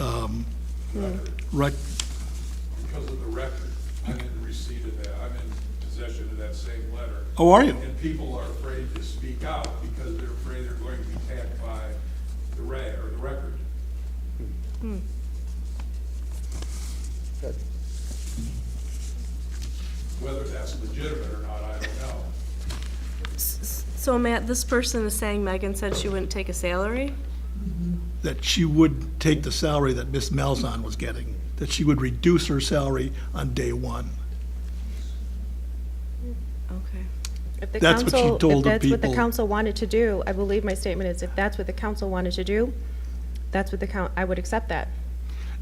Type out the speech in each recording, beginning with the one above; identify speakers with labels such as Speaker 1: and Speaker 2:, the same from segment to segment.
Speaker 1: um, rec,
Speaker 2: Because of the record, I'm in receipt of that, I'm in possession of that same letter.
Speaker 1: Oh, are you?
Speaker 2: And people are afraid to speak out because they're afraid they're going to be tagged by the ra, or the record. Whether that's legitimate or not, I don't know.
Speaker 3: So Matt, this person is saying Megan said she wouldn't take a salary?
Speaker 1: that she would take the salary that Miss Malzahn was getting, that she would reduce her salary on day one.
Speaker 3: Okay.
Speaker 4: If the
Speaker 1: That's what she
Speaker 4: council-
Speaker 1: told the
Speaker 4: If that's what the
Speaker 1: people.
Speaker 4: council wanted to do, I believe my statement is, if that's what the council wanted to do, that's what the coun, I would accept that.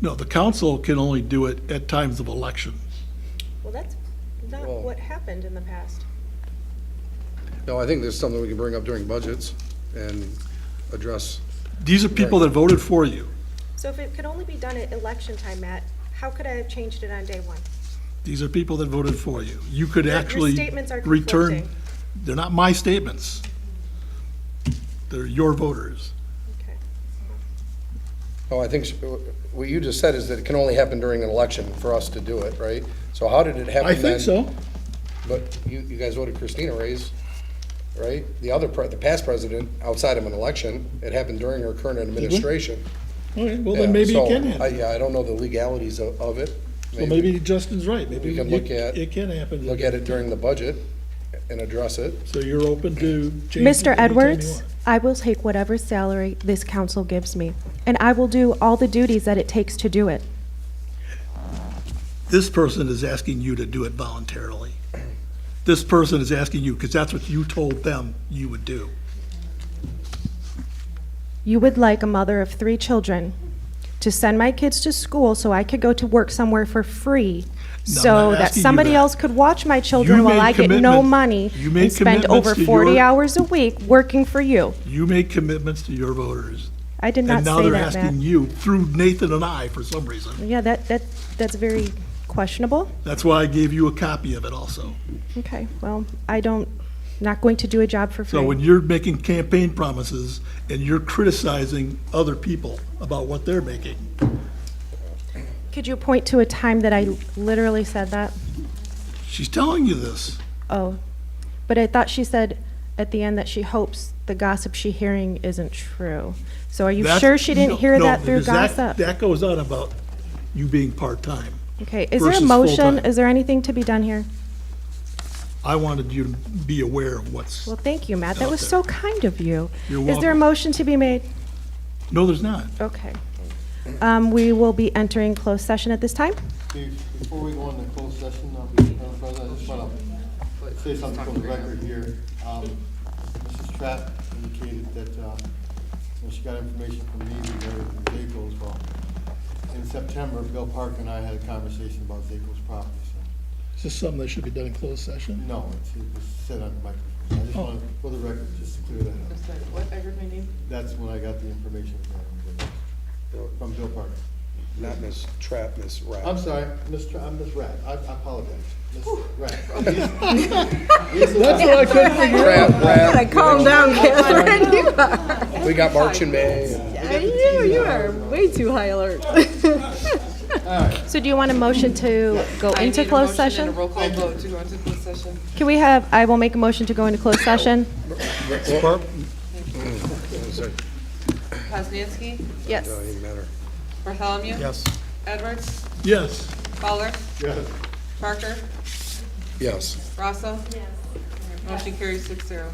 Speaker 1: No, the council can only do it at times of election.
Speaker 4: Well, that's not
Speaker 5: Well- what
Speaker 4: happened in the past.
Speaker 5: No, I think there's something we can bring up during budgets and address.
Speaker 1: These are people that voted for you.
Speaker 4: So if it could only be done at election time, Matt, how could I have changed it on day one?
Speaker 1: These are people that voted for you. You could
Speaker 4: your
Speaker 1: actually
Speaker 4: statements are
Speaker 1: return.
Speaker 4: conflicting.
Speaker 1: They're not my statements. They're your voters.
Speaker 4: Okay.
Speaker 5: Oh, I think, s- what you just said is that it can only happen during an election for us to do it, right? So how did it happen
Speaker 1: I think
Speaker 5: then?
Speaker 1: so.
Speaker 5: But you, you guys voted Christina raise, right? The other, pre- the past president, outside of an election, it happened during her current administration.
Speaker 1: Okay, well,
Speaker 5: Yeah,
Speaker 1: then maybe it
Speaker 5: so
Speaker 1: can
Speaker 5: I-
Speaker 1: happen.
Speaker 5: Yeah, I don't know the legalities of, of it.
Speaker 1: Well, maybe Justin's right. Maybe
Speaker 5: We can
Speaker 1: you-
Speaker 5: look at-
Speaker 1: It can happen.
Speaker 5: Look at it during the budget and address it.
Speaker 1: So you're open to changing. it
Speaker 4: Mr.
Speaker 1: anytime you
Speaker 4: Edwards,
Speaker 1: want.
Speaker 4: I will take whatever salary this council gives me, and I will do all the duties that it takes to do it.
Speaker 1: This person is asking you to do it voluntarily. This person is asking you, because that's what you told them you would do.
Speaker 4: You would like a mother of three children to send my kids to school so I could go to work somewhere for free,
Speaker 1: No, I'm
Speaker 4: so
Speaker 1: not
Speaker 4: that
Speaker 1: asking you
Speaker 4: somebody
Speaker 1: that.
Speaker 4: else could watch my children while
Speaker 1: made
Speaker 4: I get no
Speaker 1: commitments-
Speaker 4: money
Speaker 1: you made
Speaker 4: and spend
Speaker 1: commitments
Speaker 4: over
Speaker 1: to
Speaker 4: 40
Speaker 1: your-
Speaker 4: hours a week working for you.
Speaker 1: You made commitments to your voters.
Speaker 4: I did not
Speaker 1: And now
Speaker 4: say
Speaker 1: they're
Speaker 4: that,
Speaker 1: asking
Speaker 4: Matt.
Speaker 1: you, through Nathan and I, for some reason.
Speaker 4: Yeah, that, that, that's very questionable.
Speaker 1: That's why I gave you a copy of it also.
Speaker 4: Okay, well, I don't, not going to do a job for
Speaker 1: So when
Speaker 4: free.
Speaker 1: you're making campaign promises and you're criticizing other people about what they're making,
Speaker 4: Could you point to a time that I literally said that?
Speaker 1: she's telling you this.
Speaker 4: Oh, but I thought she said at the end that she hopes the gossip she hearing isn't true. So are you
Speaker 1: That's-
Speaker 4: sure she
Speaker 1: no,
Speaker 4: didn't hear
Speaker 1: no,
Speaker 4: that through
Speaker 1: because that-
Speaker 4: gossip?
Speaker 1: That goes on about you being part-time.
Speaker 4: Okay, is there a
Speaker 1: versus
Speaker 4: motion?
Speaker 1: full-time.
Speaker 4: Is there anything to be done here?
Speaker 1: I wanted you to be aware of what's,
Speaker 4: Well, thank you, Matt. That
Speaker 1: Out
Speaker 4: was
Speaker 1: there.
Speaker 4: so kind of you.
Speaker 1: You're
Speaker 4: Is there a
Speaker 1: welcome.
Speaker 4: motion to be made?
Speaker 1: no, there's not.
Speaker 4: Okay. Um, we will be entering closed session at this time.
Speaker 6: Steve, before we go into closed session, uh, Madam President, I just want to say something for the record here. Um, Mrs. Trapp indicated that, uh, you know, she got information from me regarding Zaco as well. In September, Bill Park and I had a conversation about Zaco's property, so,
Speaker 1: Is this something that should be done in closed session?
Speaker 6: no, it's, it was said on the microphone.
Speaker 7: Oh.
Speaker 6: I just want, to for the record, just to clear that up.
Speaker 7: What, I heard my name?
Speaker 6: That's when I got the information from, from Bill Park.
Speaker 5: Not Miss Trap, Miss Rapp.
Speaker 6: I'm sorry, Miss, Tra- I'm Miss Rapp, I I apologize, Miss Rapp. Lisa Rapp.
Speaker 1: I couldn't figure
Speaker 5: Trap, Rapp.
Speaker 7: Calm down, Catherine. You
Speaker 5: We got March and May.
Speaker 7: are, you- you are way too high alert.
Speaker 4: So do you want a motion to go into closed session?
Speaker 7: roll call vote to go into closed session.
Speaker 4: Can we have, I will make a motion to go into closed session?
Speaker 5: Barb?
Speaker 7: Poznanski,
Speaker 4: Yes.
Speaker 5: Doesn't matter.
Speaker 7: Bartholomew. Yes. Edwards,
Speaker 1: Yes.
Speaker 7: Fowler,
Speaker 6: Yes.
Speaker 7: Parker,
Speaker 5: Yes.
Speaker 7: Rosso. Motion carries six zero.